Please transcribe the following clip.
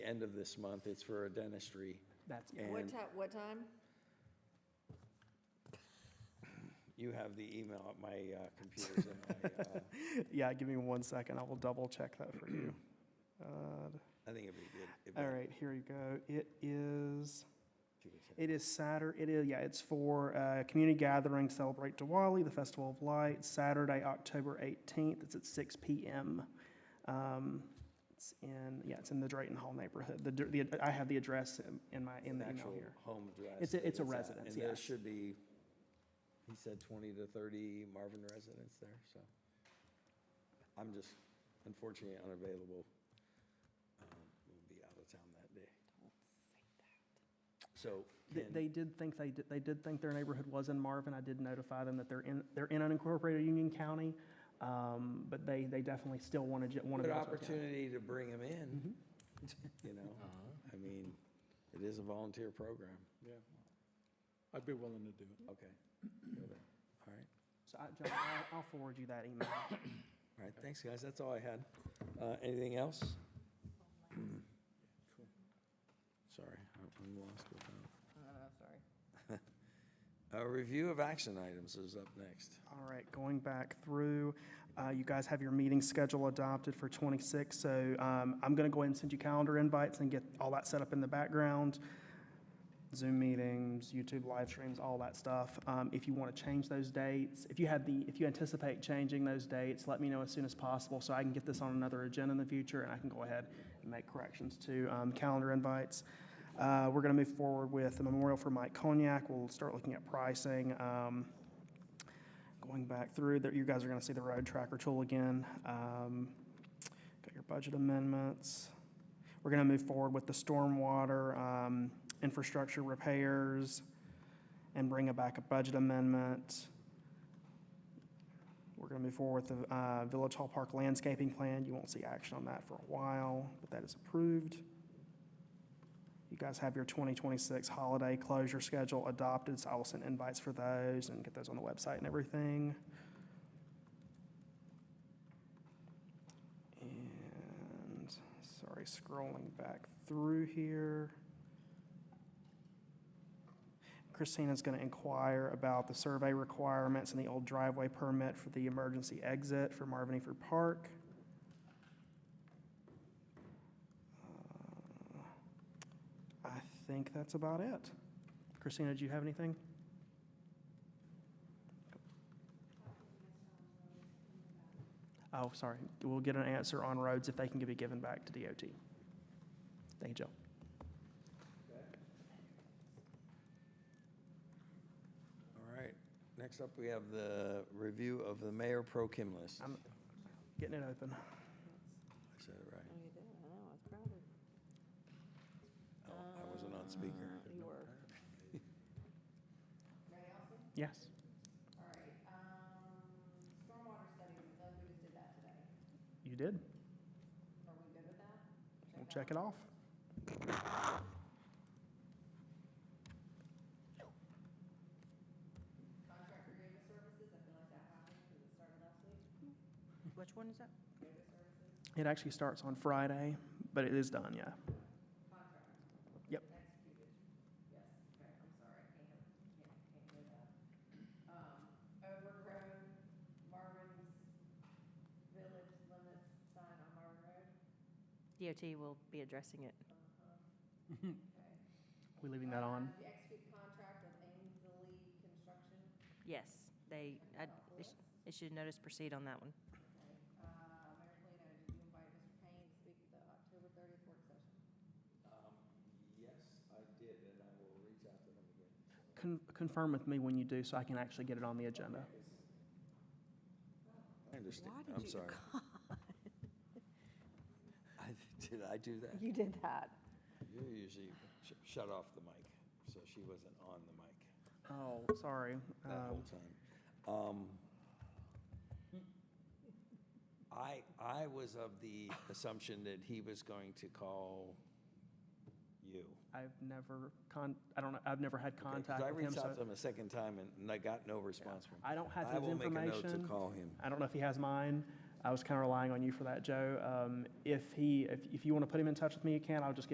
end of this month. It's for a dentistry. That's, And What time, what time? you have the email at my uh, computers and my, uh, yeah, give me one second. I will double check that for you. Uh, I think it'd be good. if All that- right, here you go. It is, you could send- it is Saturday, it is, yeah, it's for uh, community gathering, celebrate Diwali, the Festival of Lights, Saturday, October 18th. It's at 6 PM. Um, It's in, yeah, it's in the Drayton Hall neighborhood. The, the I have the address in- in my, in an the email actual here. home address. It's a- that it's a at. residence, And there yes. should be, he said 20 to 30 Marvin residents there, so. I'm just unfortunately unavailable. Um, We'll be out of town that day. So. They- can- They did think, they did, they did think their neighborhood was in Marvin. I did notify them that they're in, they're in unincorporated Union County, um, but they, they definitely still want to, want to. Good opportunity to bring them in, you know? I mean, it is a volunteer program. Yeah. I'd be willing to do it. Okay. Good. All right. So I, John, I'll- I'll forward you that email. All right, thanks, guys. That's all I had. Uh, Anything else? Sorry, I- I'm lost without. I don't know, sorry. A review of action items is up next. All right, going back through, uh, you guys have your meeting schedule adopted for 26, so um, I'm going to go ahead and send you calendar invites and get all that set up in the background. Zoom meetings, YouTube live streams, all that stuff. Um, If you want to change those dates, if you have the, if you anticipate changing those dates, let me know as soon as possible so I can get this on another agenda in the future and I can go ahead and make corrections to um, calendar invites. Uh, We're going to move forward with the memorial for Mike Cognac. We'll start looking at pricing. Um, going back through, that you guys are gonna see the road tracker tool again. Um, Got your budget amendments. We're gonna move forward with the stormwater, um, infrastructure repairs and bring it back a budget amendment. We're gonna move forward with the, uh, Village Hall Park landscaping plan. You won't see action on that for a while, but that is approved. You guys have your 2026 holiday closure schedule adopted, so I will send invites for those and get those on the website and everything. And, sorry, scrolling back through here. Christina's going to inquire about the survey requirements and the old driveway permit for the emergency exit for Marvin Eater Park. Uh, I think that's about it. Christina, do you have anything? Oh, sorry. We'll get an answer on roads if they can be given back to DOT. Thank you, Joe. All right, next up, we have the review of the mayor pro Kim list. I I'm getting it open. said it right. Oh, you did, I know, I was proud of you. Oh, I wasn't on speaker. Uh, You were. Yes. All right, um, stormwater studies, I thought we just did that today. You did. Are we good with that? We'll check it off. Contractor data services, I feel like that happened because it started last week. Which one is that? It actually starts on Friday, but it is done, yeah. Yep. Executed, yes, okay, I'm sorry, I can't, can't, can't hear that. Um, overgrown Marvin's village limits sign on Marvin Road, DOT will be addressing it. okay. We leaving that on? Uh, The execute contract with Ainsley Construction, Yes, they, I- it sh- it should notice proceed on that one. okay. Uh, Mayor Polino, did you invite Mr. Payne to speak at the October thirtieth work session? Yes, I did, and I will reach out to him again. Con- Confirm with me when you do so I can actually get it on the agenda. I understand, Why did I'm you- sorry. I- Did I do that? You did that. You usually sh- shut off the mic, so she wasn't on the mic Oh, sorry. that whole time. Um, Um, I, I was of the assumption that he was going to call you. I've never con, I don't know, I've never had okay? 'Cause contact with him, I reached out to so him a second time and and I got no response from him. I don't have his I will make a note to information. call him. I don't know if he has mine. I was kind of relying on you for that, Joe. Um, if he, if, if you want to put him in touch with me, you can. I'll just get